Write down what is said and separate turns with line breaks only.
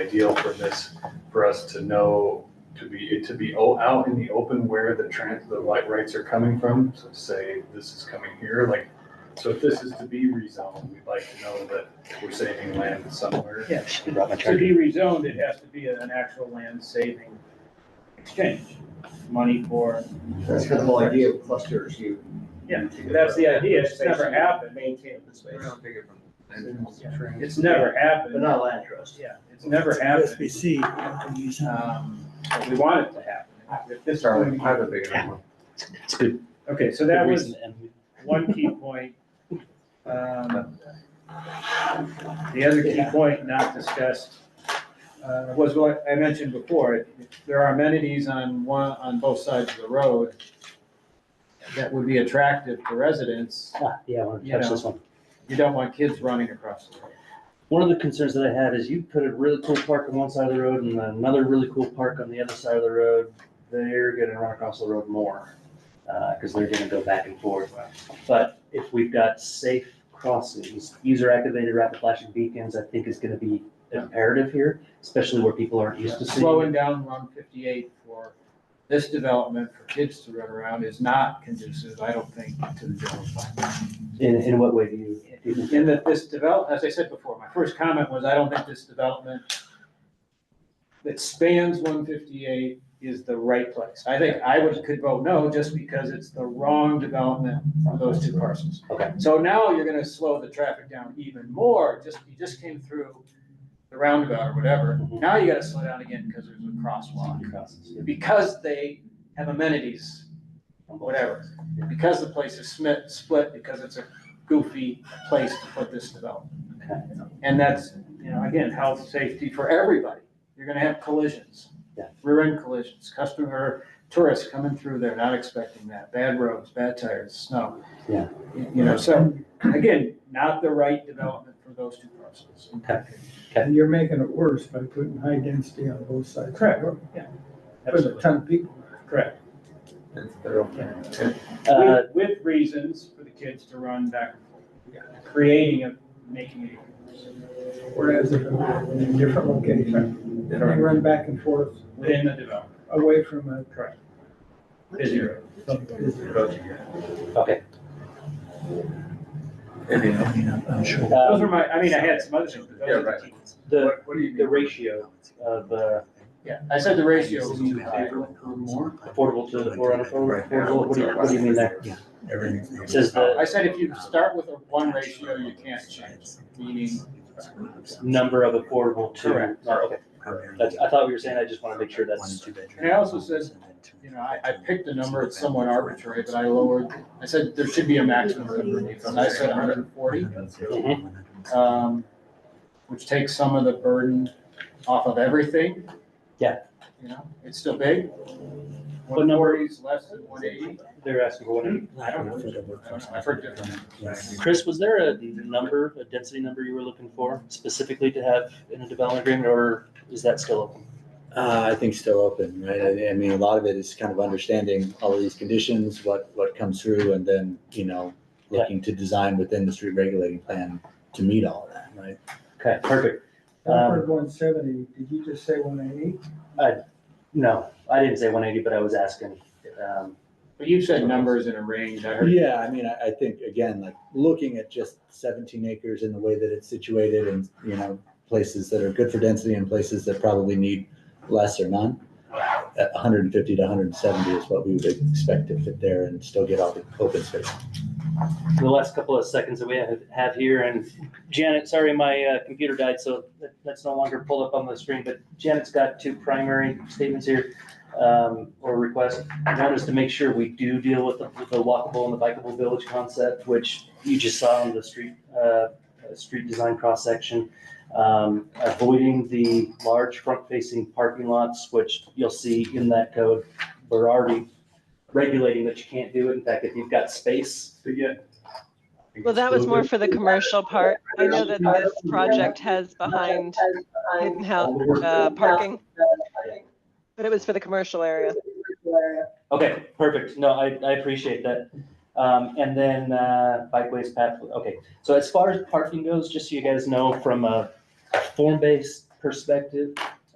ideal for this, for us to know, to be, it to be o- out in the open where the trans, the light rights are coming from. So say this is coming here, like, so if this is to be rezoned, we'd like to know that we're saving land somewhere.
Yeah.
I brought my
To
charger.
be rezoned, it has to be an actual land saving exchange, money for,
That's kind of the whole idea of clusters, you.
yeah, that's the idea, it's never happened.
Maintain the space.
It's never
But
happened,
not a land trust.
yeah, it's never happened. Um, but we want it to happen. If this were-
It's good.
Okay, so
good
that was
reason to end.
one key point. Um, The other key point not discussed uh, was what I mentioned before. There are amenities on one, on both sides of the road that would be attractive to residents.
Ah, Yeah, I want to
You
touch
know.
this one.
You don't want kids running across the road.
One of the concerns that I had is you put a really cool park on one side of the road and another really cool park on the other side of the road. They're gonna run across the road more, uh, cause they're gonna go back and forth. But if we've got safe crossings, user activated rapid flashing beacons, I think is gonna be imperative here, especially where people aren't used to seeing. it.
Slowing down one fifty-eight for this development for kids to run around is not conducive, I don't think, to the general public.
In, in what way do you? do you think-
in that this develop, as I said before, my first comment was, I don't think this development that spans one fifty-eight is the right place. I think I would, could vote no, just because it's the wrong development for those two parcels.
Okay.
So now you're gonna slow the traffic down even more, just, you just came through the roundabout or whatever.
Mhm.
Now you gotta slow down again because there's a crosswalk,
Crosses.
because they have amenities whatever. Because the place is split, split because it's a goofy place to put this development.
Okay.
And that's, you know, again, health, safety for everybody. You're gonna have collisions.
Yeah.
Rear end collisions, customer, tourists coming through there, not expecting that, bad roads, bad tires, snow.
Yeah.
You know, so, again, not the right development for those two parcels.
Okay.
And you're making it worse by putting high density on both sides. of the
Correct.
road. Put a ton of people.
Uh,
With, with reasons for the kids to run back and forth, creating a, making it.
Whereas if it were in a different location, they run back and forth
within the development.
away from a.
Correct. Busy road.
Okay.
Those
Um,
were my, I mean, I had some other things, but
Yeah,
those are the key.
The,
What do you
the ratio of uh,
Yeah, I said the ratio was too high.
affordable to the four unaffordable, affordable, what do you, what do you mean there?
Everything.
It Says the
I said if you start with a one ratio, you can't change, meaning
number of affordable to.
Correct.
Oh, okay. That's, I thought we were saying, I just want to make sure that's,
And I also said, you know, I, I picked a number, it's somewhat arbitrary, but I lowered, I said there should be a maximum of relief, and I said hundred and forty, um, which takes some of the burden off of everything.
Yeah.
You know, it's still big.
What
One
number?
forty is less than one eighty.
they're asking for one.
I don't know, I don't know, I've heard different.
Chris, was there a number, a density number you were looking for specifically to have in a development agreement, or is that still open?
Uh, I think still open, right? I, I mean, a lot of it is kind of understanding all of these conditions, what, what comes through, and then, you know,
Yeah.
looking to design within the street regulating plan to meet all of that, right?
Okay, perfect.
I heard one seventy, did you just say one eighty?
No, I didn't say one eighty, but I was asking. Um,
But you said numbers in a range, I heard.
Yeah, I mean, I, I think, again, like, looking at just seventeen acres and the way that it's situated and, you know, places that are good for density and places that probably need less or none. At hundred and fifty to hundred and seventy is what we would expect to fit there and still get all the open space.
The last couple of seconds that we have, have here, and Janet, sorry, my uh, computer died, so that- that's no longer pulled up on the screen, but Janet's got two primary statements here, um, or requests. One is to make sure we do deal with the, with the walkable and the bikeable village concept, which you just saw in the street, uh, uh, street design cross-section. Um, Avoiding the large front-facing parking lots, which you'll see in that code, we're already regulating that you can't do it. In fact, if you've got space to get
Well, that was more for the commercial part. I know that this project has behind hidden house, uh, parking. But it was for the commercial area.
Okay, perfect. No, I, I appreciate that. Um, and then, uh, bikeways path, okay. So as far as parking goes, just so you guys know, from a form-based perspective,